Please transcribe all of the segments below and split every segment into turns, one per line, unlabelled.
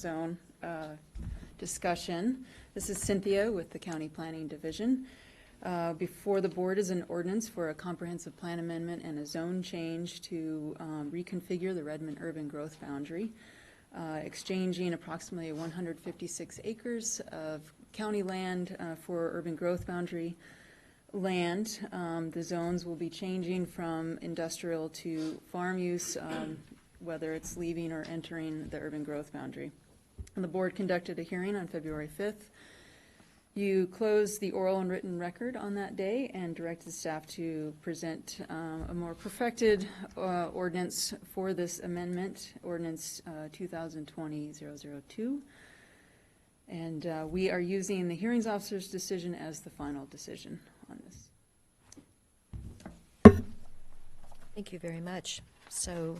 zone uh, discussion. This is Cynthia with the County Planning Division. Uh, Before the board is an ordinance for a comprehensive plan amendment and a zone change to um, reconfigure the Redmond urban growth boundary, uh, exchanging approximately 156 acres of county land uh, for urban growth boundary land. Um, The zones will be changing from industrial to farm use, um, whether it's leaving or entering the urban growth boundary. And the board conducted a hearing on February 5th. You closed the oral and written record on that day and directed staff to present um, a more perfected uh, ordinance for this amendment, ordinance uh, 2020-002. And uh, we are using the hearings officer's decision as the final decision on this.
Thank you very much. So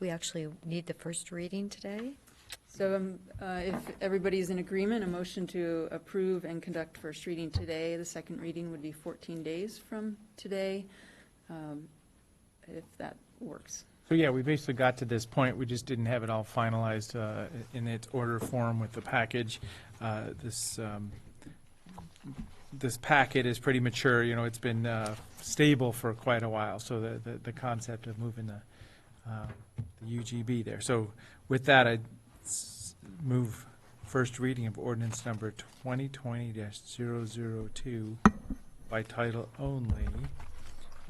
we actually need the first reading today.
So um, uh, if everybody's in agreement, a motion to approve and conduct first reading today. The second reading would be 14 days from today, um, if that works.
So yeah, we basically got to this point, we just didn't have it all finalized uh, in its order form with the package. Uh, This, um, this packet is pretty mature, you know, it's been uh, stable for quite a while, so the, the- the concept of moving the uh, the UGB there. So with that, I move first reading of ordinance number 2020-002 by title only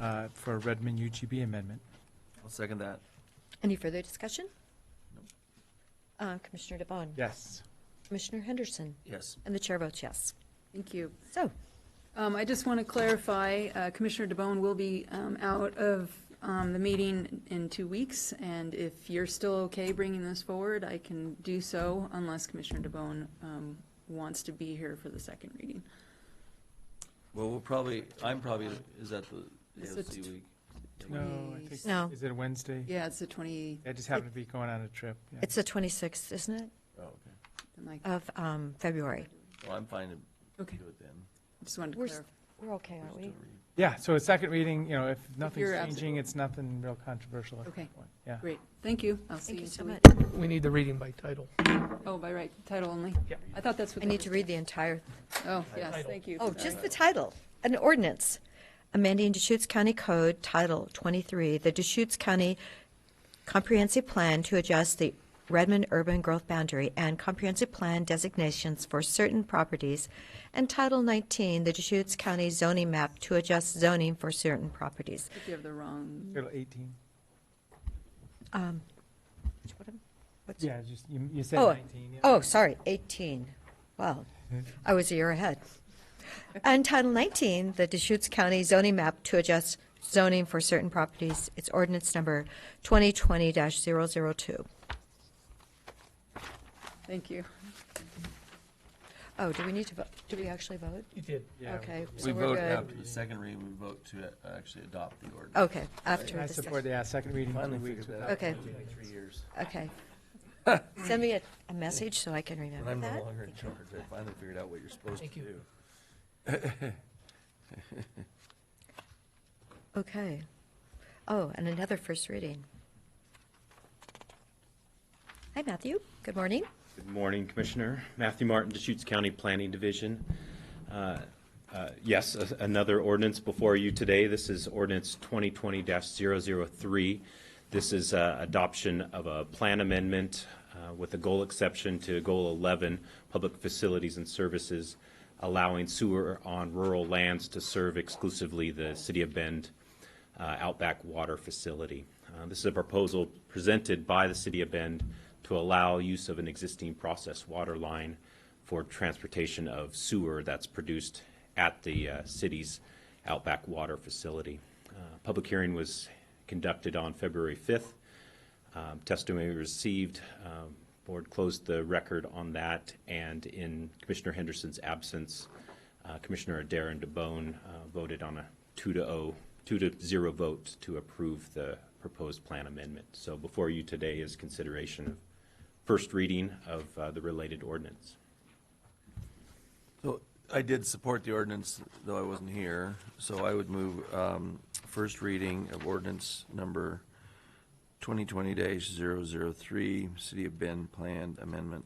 uh, for Redmond UGB amendment.
I'll second that.
Any further discussion? Uh, Commissioner DeBon?
Yes.
Commissioner Henderson?
Yes.
And the chair votes yes.
Thank you.
So,
Um, I just want to clarify, uh, Commissioner DeBonne will be um, out of um, the meeting in two weeks, and if you're still okay bringing this forward, I can do so unless Commissioner DeBonne um, wants to be here for the second reading.
Well, we'll probably, I'm probably, is that the
Is
AOC
it-
week?
No, I think,
No.
is it a Wednesday?
Yeah, it's the 20,
I just happened to be going on a trip. yeah.
it's the 26th, isn't it,
Oh, okay.
like,
of um, February?
Well, I'm fine to
okay,
do it then.
just wanted to
We're,
clarify.
s- we're okay, aren't we?
Yeah, so a second reading, you know, if
you're
nothing's
absent-
changing, it's nothing real controversial. at
Okay.
that point, Yeah.
Great, thank you. I'll see
Thank
you
you
in
so
two
much.
weeks.
We need the reading by title.
Oh, by right, title only?
Yeah.
I thought that's what.
I
they
need to
were
read the entire,
saying. Oh, yes,
Title.
thank you.
oh,
Sorry.
just the title, an ordinance amending Deschutes County Code Title 23, the Deschutes County comprehensive plan to adjust the Redmond urban growth boundary and comprehensive plan designations for certain properties, and Title 19, the Deschutes County zoning map to adjust zoning for certain properties.
I think you have the wrong,
Title 18.
Um, which one am- what's-
Yeah, just, you, you said
Oh,
19. yeah.
Oh, sorry, 18. Wow, I was a year ahead. And Title 19, the Deschutes County zoning map to adjust zoning for certain properties, it's ordinance number 2020-002.
thank you.
Oh, do we need to, vote? do we actually vote?
You did.
Yeah,
Okay,
we-
so
We
we're
vote
good.
after the second reading, we vote to a- actually adopt the ordinance.
Okay, after
I
the
support,
second.
yeah, second reading, two weeks. without-
Okay.
Three years.
Okay. Send me a, a message so I can
When
remember
I'm no
that.
longer in charge, I finally figured out what you're supposed to
Thank you.
do.
Okay. Oh, and another first reading. Hi, Matthew. Good morning.
Good morning, Commissioner. Matthew Martin, Deschutes County Planning Division. Uh, uh, Yes, a- another ordinance before you today. This is ordinance 2020-003. This is uh, adoption of a plan amendment uh, with a goal exception to Goal 11, Public Facilities and Services, allowing sewer on rural lands to serve exclusively the City of Bend uh, Outback Water Facility. Uh, This is a proposal presented by the City of Bend to allow use of an existing process water line for transportation of sewer that's produced at the uh, city's Outback Water Facility. Uh, Public hearing was conducted on February 5th. Um, Testimony received, um, board closed the record on that, and in Commissioner Henderson's absence, uh, Commissioner Adair and DeBonne uh, voted on a two to oh, two to zero vote to approve the proposed plan amendment. So before you today is consideration of first reading of uh, the related ordinance.
So I did support the ordinance, though I wasn't here, so I would move um, first reading of ordinance number 2020-003, City of Bend Planned Amendment